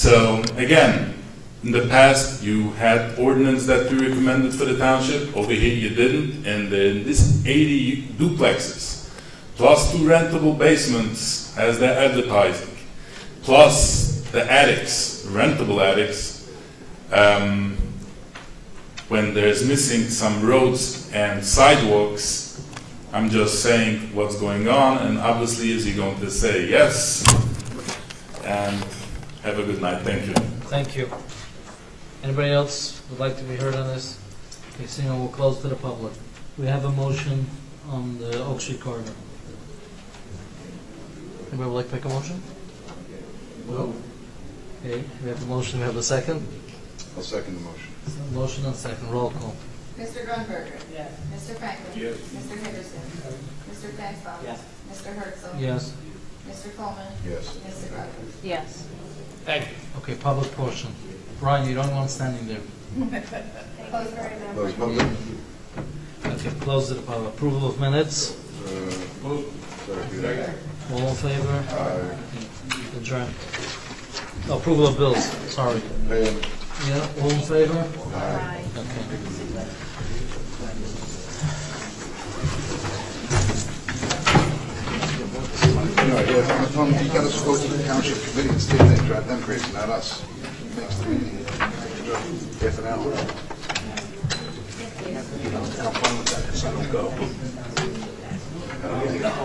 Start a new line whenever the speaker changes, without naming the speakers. So again, in the past, you had ordinance that you recommended for the township, over here you didn't, and then this eighty duplexes, plus two rentable basements as they're advertising, plus the attics, rentable attics, um, when there's missing some roads and sidewalks, I'm just saying what's going on, and obviously, is he going to say yes? And have a good night, thank you.
Thank you. Anybody else would like to be heard on this? Okay, seeing none, we'll close to the public. We have a motion on the Oak Street corridor. Anybody would like to make a motion? No. Okay, we have a motion, we have a second?
I'll second the motion.
Motion and second, roll call.
Mr. Grunberger. Yes. Mr. Franklin. Yes. Mr. Henderson. Mr. Flansbrough. Yes. Mr. Herzl.
Yes,
Mr. Coleman.
Yes.
Mr. Buckles.
Yes.
Thank you.
okay, public portion. Brian, you don't want standing there.
Close very much.
Those public,
Okay, close to the public. Approval of minutes,
sorry, do that.
all in favor? Adjourned. No, Approval of bills, sorry.
Pay 'em.
Yeah, all in favor?
Aye.
Okay.
You know, yeah, Tom, you gotta go to the township committee and stay there, drive them crazy, not us. Makes the meeting, uh, half an hour. Have fun with that, 'cause I don't go.